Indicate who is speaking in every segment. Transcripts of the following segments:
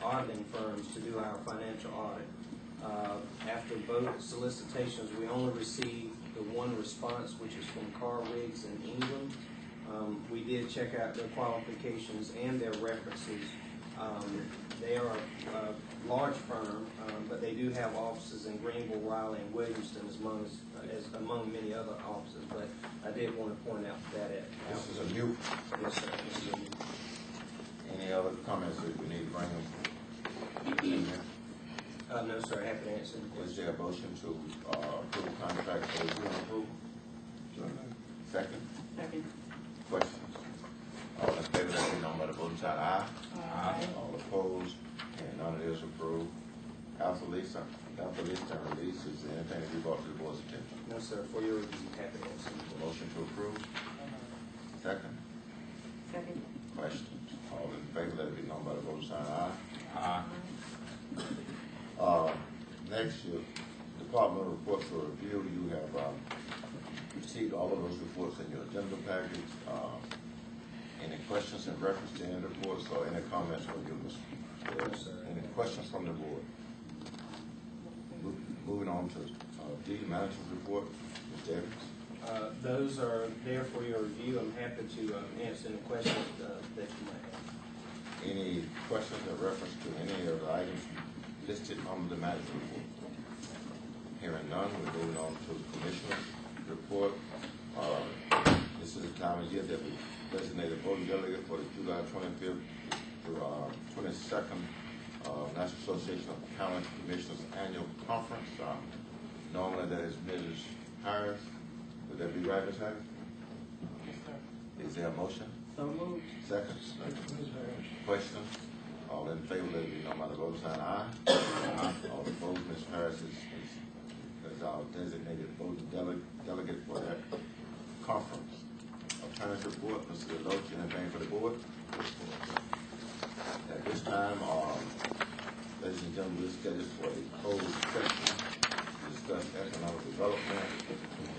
Speaker 1: accounting uh, firms to do our financial audit. Uh, After both solicitations, we only received the one response, which is from Carl Riggs in England. Um, We did check out their qualifications and their references. Um, They are a a large firm, um, but they do have offices in Greenville, Raleigh, and Williamston, as among, as among many other offices. But I did want to point out that at.
Speaker 2: This is a new,
Speaker 1: Yes, sir. This is a-
Speaker 2: any other comments that we need to bring in there?
Speaker 1: Uh, no, sir, happy to answer the
Speaker 2: Is
Speaker 1: question.
Speaker 2: there a motion to uh, approve contract for review and approval? Second,
Speaker 3: Second.
Speaker 2: questions? All in favor, let it be known by the voting side, aye.
Speaker 3: Aye.
Speaker 2: All opposed, and none of this approved. Council lease, council lease and release is there anything that you brought to the board's attention.
Speaker 1: No, sir, for your review, happy to answer.
Speaker 2: Motion to approve, second,
Speaker 3: Second.
Speaker 2: questions? All in favor, let it be known by the voting side, aye.
Speaker 4: Aye.
Speaker 2: Uh, Next, your department reports for review, you have uh, received all of those reports in your agenda package. Uh, Any questions in reference to any reports or any comments from you, Mr.
Speaker 1: Yes,
Speaker 2: Williams?
Speaker 1: sir.
Speaker 2: Any questions from the board? Mo- Moving on to uh, D, management report, Mr. Evans.
Speaker 1: Uh, those are there for your review, I'm happy to, um, answer any questions, uh, that you might have.
Speaker 2: Any questions in reference to any of the items listed on the management report? Hearing none, we're moving on to the commissioner's report. Uh, This is the time of year that we designate a voting delegate for the July twenty-fifth through twenty-second uh, National Association of County Commissioners Annual Conference. Uh, Normally that is Mrs. Harris. Would that be right, Ms. Harris? Is there a motion?
Speaker 3: So moved.
Speaker 2: Seconds? Questions? All in favor, let it be known by the vote sign aye. Aye. All opposed, Ms. Harris is, is, is our designated voting dele- delegate for that conference. Attorney's report, Mr. Deloach, anything for the board? At this time, um, ladies and gentlemen, we're scheduled for a closed session to discuss economic development.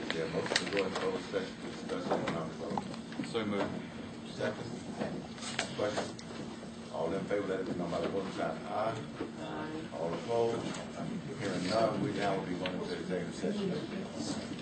Speaker 2: Is there a motion to go into closed session to discuss economic development?
Speaker 4: So moved.
Speaker 2: Second. Question. All in favor, let it be known by the voting sign of aye. All opposed? Hearing none, we now will be going to executive session.